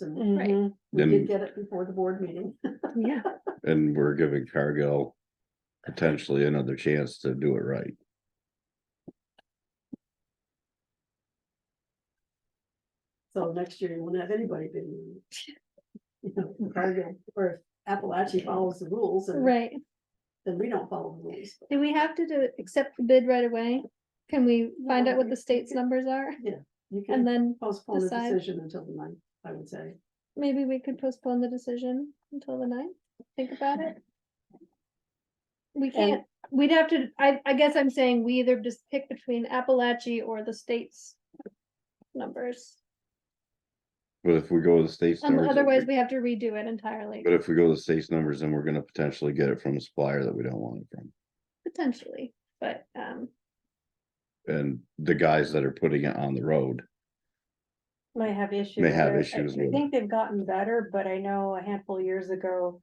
and Right. Mhm. we did And, get it before the board meeting. Yeah, and we're giving Cargill potentially another chance to do it right. So next year, you won't have anybody bidding. You know, Cargill or Appalachia follows the rules and Right. then we don't follow the rules. Do we have to do, accept the bid right away? Can we find out what the state's numbers are? You And can then postpone the decide. decision until the ninth, I would say. maybe we could postpone the decision until the ninth, think about it. We can't, we'd have to, I, I guess I'm saying we either just pick between Appalachia or the state's numbers. But if we go to the state's. Um, numbers, otherwise, we have to redo it entirely, But if we go to the state's numbers, then we're gonna potentially get it from a supplier that we don't want it from. potentially, but, um, And the guys that are putting it on the road, might have issues. have there. I- issues with I it. think they've gotten better, but I know a handful of years ago.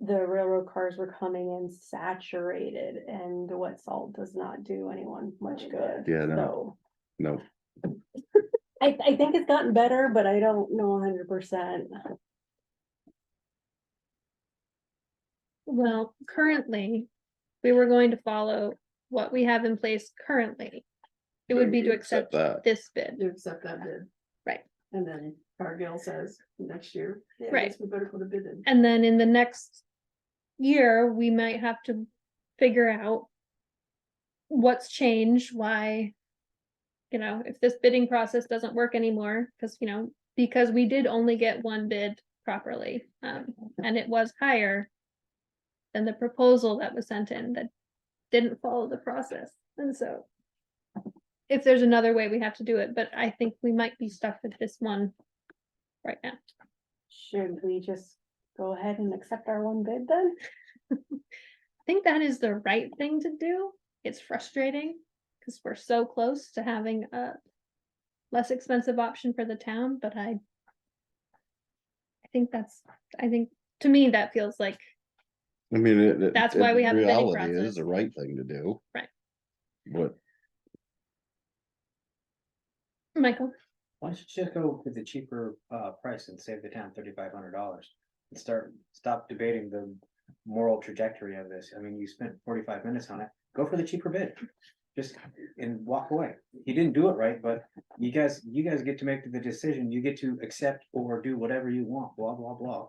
The railroad cars were coming in saturated and what salt does not do anyone much good. Yeah, no. So no, I, I think it's gotten better, but I don't know hundred percent. well, currently, we were going to follow what we have in place currently. It would be to accept that. this bid, You accept that bid. Right. And then Cargill says next year, yeah, I Right. guess we better put a bid in. and then in the next year, we might have to figure out what's changed, why, you know, if this bidding process doesn't work anymore, because, you know, because we did only get one bid properly, um, and it was higher than the proposal that was sent in that didn't follow the process, and so if there's another way, we have to do it, but I think we might be stuck with this one right now. Should we just go ahead and accept our one bid then? I think that is the right thing to do. It's frustrating because we're so close to having a less expensive option for the town, but I I think that's, I think, to me, that feels like, I mean, it. it- That's why we in have a bidding Reality process. is the right thing to do. Right. But Michael, Why don't you just go with the cheaper uh price and save the town thirty-five hundred dollars? And start, stop debating the moral trajectory of this. I mean, you spent forty-five minutes on it. Go for the cheaper bid. Just and walk away. You didn't do it right, but you guys, you guys get to make the decision. You get to accept or do whatever you want, blah, blah, blah.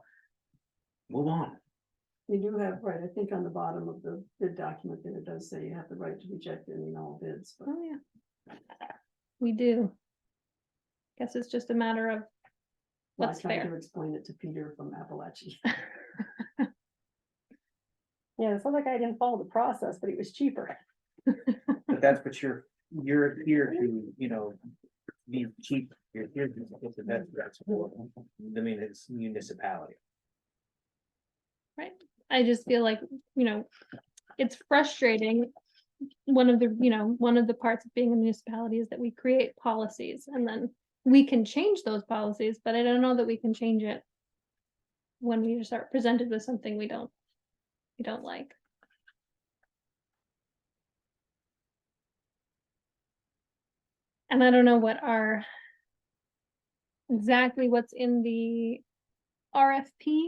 Move on. You do have, right, I think on the bottom of the bid document that it does say you have the right to reject any and all bids, but oh yeah. We do. Guess it's just a matter of, well, I That's tried fair. to explain it to Peter from Appalachia. Yeah, it sounds like I didn't follow the process, but it was cheaper. But that's what you're, you're here to, you know, be cheap. You're here to get the best that's for, I mean, it's municipality. I just feel like, you know, it's frustrating. One of the, you know, one of the parts of being a municipality is that we create policies and then we can change those policies, but I don't know that we can change it. When we just are presented with something we don't, we don't like. And I don't know what our. Exactly what's in the RFP.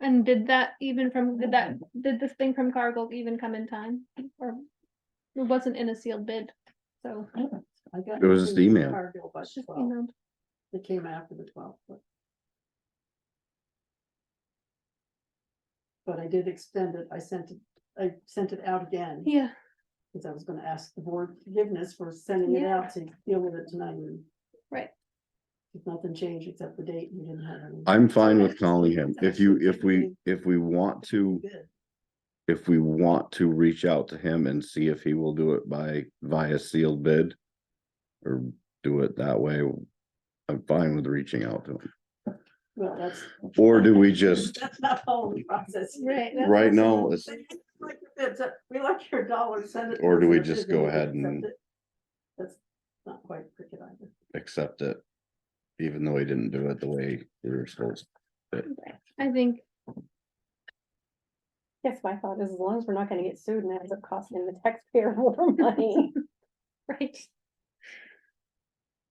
And did that even from, did that, did this thing from Cargill even come in time or? It wasn't in a sealed bid, so I got It was just nothing from email. Cargill by it's just 12. emailed. It came after the twelfth, but. But I did extend it, I sent it, I sent it out again, Yeah, because I was gonna ask the board forgiveness for sending it Yeah. out to deal with it tonight. and Right. If nothing changed except the date, you didn't have any. I'm fine that's- with calling him. If you, if we, if we want to, Good. if we want to reach out to him and see if he will do it by via sealed bid. Or do it that way. I'm fine with reaching out to him. Well, that's. Or do we just, That's not all the process. right. that's right also now, not- it's, They just like your bids, uh, We like your dollars, send it. to Or us do in we a just bid go we ahead accept and- it. That's not quite cricket either. accept it. Even though he didn't do it the way we were supposed. Right. I think, Yes, my thought is as long as we're not gonna get sued and it ends up costing the taxpayer more money. right,